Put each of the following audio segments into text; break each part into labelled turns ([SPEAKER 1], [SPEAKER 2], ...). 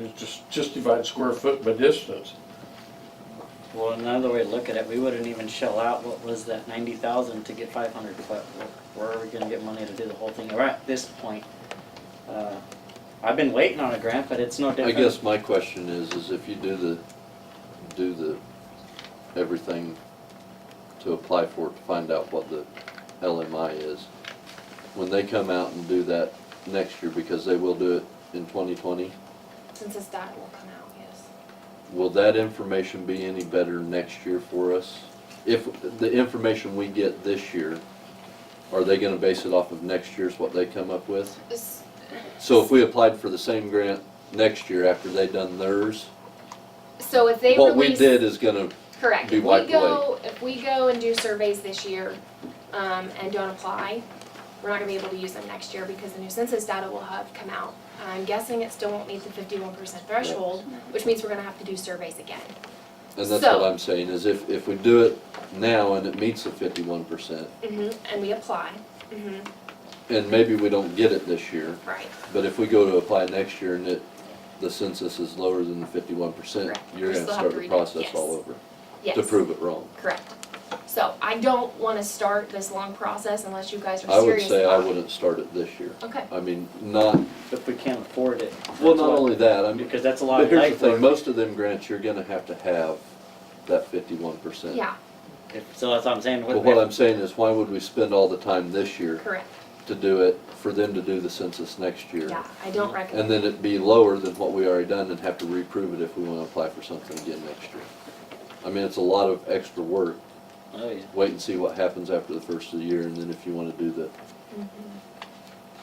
[SPEAKER 1] It's just, just divide square foot by distance.
[SPEAKER 2] Well, another way to look at it, we wouldn't even shell out what was that ninety thousand to get five hundred foot. Where are we gonna get money to do the whole thing? We're at this point. uh, I've been waiting on a grant, but it's no
[SPEAKER 3] I
[SPEAKER 2] different.
[SPEAKER 3] guess my question is, is if you do the, do the, everything to apply for it, to find out what the LMI is, when they come out and do that next year, because they will do it in twenty twenty,
[SPEAKER 4] Since this data will come out, yes.
[SPEAKER 3] will that information be any better next year for us? If the information we get this year, are they gonna base it off of next year's what they come up with?
[SPEAKER 4] This,
[SPEAKER 3] So if we applied for the same grant next year after they done theirs,
[SPEAKER 4] so if they
[SPEAKER 3] what we
[SPEAKER 4] release,
[SPEAKER 3] did is gonna
[SPEAKER 4] correct,
[SPEAKER 3] be
[SPEAKER 4] if we
[SPEAKER 3] wiped
[SPEAKER 4] go, if we go and do surveys this year, um, and don't apply, we're not gonna be able to use them next year because the new census data will have come out. I'm guessing it still won't meet the fifty-one percent threshold, which means we're gonna have to do surveys again.
[SPEAKER 3] And that's
[SPEAKER 4] So-
[SPEAKER 3] what I'm saying, is if, if we do it now and it meets the fifty-one percent,
[SPEAKER 4] Mm-hmm. And we apply, mm-hmm,
[SPEAKER 3] and maybe we don't get it this year,
[SPEAKER 4] right,
[SPEAKER 3] but if we go to apply next year and it, the census is lower than the fifty-one percent,
[SPEAKER 4] Correct.
[SPEAKER 3] you're
[SPEAKER 4] We
[SPEAKER 3] gonna
[SPEAKER 4] still have
[SPEAKER 3] start
[SPEAKER 4] to
[SPEAKER 3] the
[SPEAKER 4] redo-
[SPEAKER 3] process
[SPEAKER 4] yes.
[SPEAKER 3] all over,
[SPEAKER 4] yes.
[SPEAKER 3] to prove it wrong.
[SPEAKER 4] Correct. So I don't wanna start this long process unless you guys
[SPEAKER 3] I
[SPEAKER 4] are
[SPEAKER 3] would
[SPEAKER 4] serious about it.
[SPEAKER 3] say I wouldn't start it this year.
[SPEAKER 4] Okay,
[SPEAKER 3] I mean, not,
[SPEAKER 2] If we can't afford it.
[SPEAKER 3] well,
[SPEAKER 2] that's
[SPEAKER 3] not
[SPEAKER 2] what-
[SPEAKER 3] only that, I mean,
[SPEAKER 2] Because that's a lot
[SPEAKER 3] but
[SPEAKER 2] of
[SPEAKER 3] here's the
[SPEAKER 2] life
[SPEAKER 3] thing,
[SPEAKER 2] work.
[SPEAKER 3] most of them grants, you're gonna have to have that fifty-one percent.
[SPEAKER 4] yeah,
[SPEAKER 2] If- So that's what I'm saying.
[SPEAKER 3] But what I'm saying is, why would we spend all the time this year
[SPEAKER 4] correct,
[SPEAKER 3] to do it, for them to do the census next year?
[SPEAKER 4] yeah, I don't recommend.
[SPEAKER 3] And then it'd be lower than what we already done and have to reprove it if we wanna apply for something again next year. I mean, it's a lot of extra work.
[SPEAKER 2] Oh, yeah.
[SPEAKER 3] Wait and see what happens after the first of the year and then if you wanna do the,
[SPEAKER 4] Mm-hmm.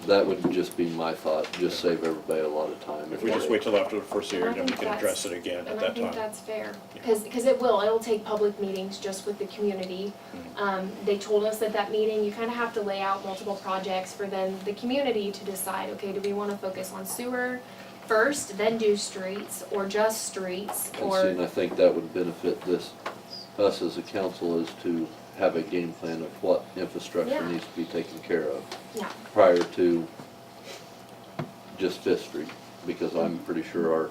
[SPEAKER 3] that would just be my thought, just save everybody a lot of time.
[SPEAKER 5] If we just wait till after the first year, then we can address it again at
[SPEAKER 4] And I
[SPEAKER 5] that
[SPEAKER 4] think
[SPEAKER 5] time.
[SPEAKER 4] that's fair,
[SPEAKER 5] Yeah.
[SPEAKER 4] because, because it will, it'll take public meetings just with the community.
[SPEAKER 5] Mm-hmm.
[SPEAKER 4] Um, they told us at that meeting, you kind of have to lay out multiple projects for then the community to decide, okay, do we want to focus on sewer first, then do streets, or just streets,
[SPEAKER 3] And see,
[SPEAKER 4] or,
[SPEAKER 3] and I think that would benefit this, us as a council is to have a game plan of what infrastructure
[SPEAKER 4] Yeah.
[SPEAKER 3] needs to be taken care of
[SPEAKER 4] yeah,
[SPEAKER 3] prior to just Fifth Street, because I'm
[SPEAKER 4] Mm-hmm.
[SPEAKER 3] pretty sure our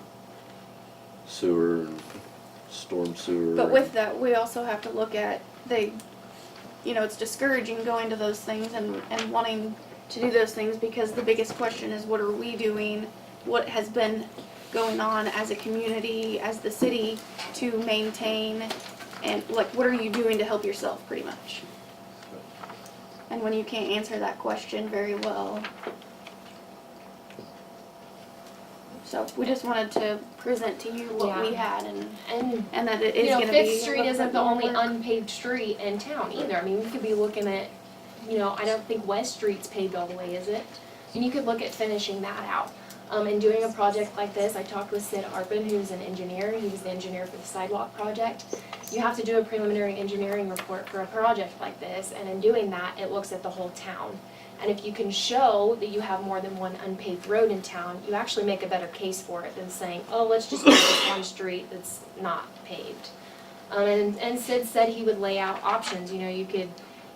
[SPEAKER 3] sewer and storm sewer.
[SPEAKER 6] But with that, we also have to look at they, you know, it's discouraging going to those things and, and wanting to do those things because the biggest question is what are we doing? What has been going on as a community, as the city to maintain and like what are you doing to help yourself pretty much? And when you can't answer that question very well. So we just wanted to present to you what we had and
[SPEAKER 4] and,
[SPEAKER 6] and that it is
[SPEAKER 4] you know,
[SPEAKER 6] gonna be.
[SPEAKER 4] Fifth Street
[SPEAKER 6] a little
[SPEAKER 4] isn't
[SPEAKER 6] bit
[SPEAKER 4] the only
[SPEAKER 6] more-
[SPEAKER 4] unpaved street in town either, I mean, we could be looking at, you know, I don't think West Street's paved all the way, is it? And you could look at finishing that out. Um, and doing a project like this, I talked with Sid Arpin, who's an engineer, he was the engineer for the sidewalk project. You have to do a preliminary engineering report for a project like this, and in doing that, it looks at the whole town. And if you can show that you have more than one unpaved road in town, you actually make a better case for it than saying, oh, let's just do this one street that's not paved. Um, and, and Sid said he would lay out options, you know, you could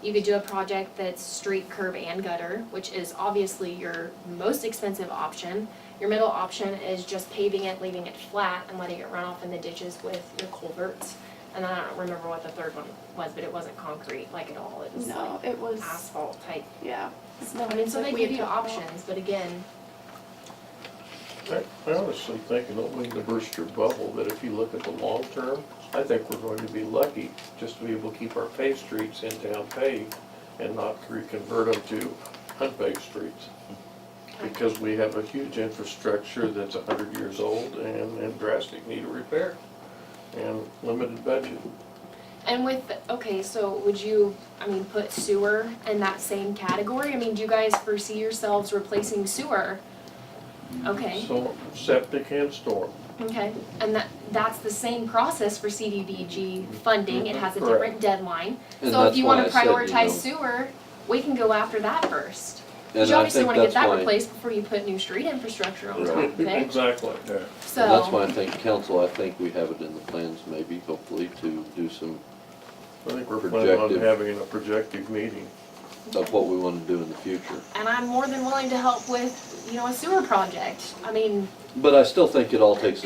[SPEAKER 4] you could do a project that's street, curb, and gutter, which is obviously your most expensive option. Your middle option is just paving it, leaving it flat, and letting it run off in the ditches with your culverts. And I don't remember what the third one was, but it wasn't concrete like at all, it was like
[SPEAKER 6] No, it was,
[SPEAKER 4] asphalt type.
[SPEAKER 6] yeah.
[SPEAKER 4] No, I mean, so
[SPEAKER 6] like
[SPEAKER 4] they
[SPEAKER 6] we
[SPEAKER 4] give
[SPEAKER 6] had
[SPEAKER 4] you
[SPEAKER 6] talked about.
[SPEAKER 4] options, but again,
[SPEAKER 1] I I honestly think, and don't mean to burst your bubble, that if you look at the long term, I think we're going to be lucky just to be able to keep our paved streets in town paved and not reconvert them to unpaved streets. Because we have a huge infrastructure that's a hundred years old and, and drastic need of repair and limited budget.
[SPEAKER 4] And with, okay, so would you, I mean, put sewer in that same category? I mean, do you guys foresee yourselves replacing sewer? Okay,
[SPEAKER 1] So septic and storm.
[SPEAKER 4] okay, and that, that's the same process for CDBG funding, it has a different deadline.
[SPEAKER 3] And
[SPEAKER 4] So if
[SPEAKER 3] that's
[SPEAKER 4] you wanna
[SPEAKER 3] why I said, you know,
[SPEAKER 4] prioritize sewer, we can go after that first. 'Cause
[SPEAKER 3] and
[SPEAKER 4] you
[SPEAKER 3] I
[SPEAKER 4] obviously
[SPEAKER 3] think
[SPEAKER 4] wanna
[SPEAKER 3] that's
[SPEAKER 4] get that
[SPEAKER 3] why-
[SPEAKER 4] replaced before you put new street infrastructure on top of it,
[SPEAKER 1] Exactly.
[SPEAKER 4] so.
[SPEAKER 3] And that's why I think council, I think we have it in the plans maybe, hopefully, to do some,
[SPEAKER 1] I think we're planning on
[SPEAKER 3] Projective.
[SPEAKER 1] having a projective meeting.
[SPEAKER 3] of what we wanna do in the future.
[SPEAKER 4] And I'm more than willing to help with, you know, a sewer project. I mean,
[SPEAKER 3] But I still think it all takes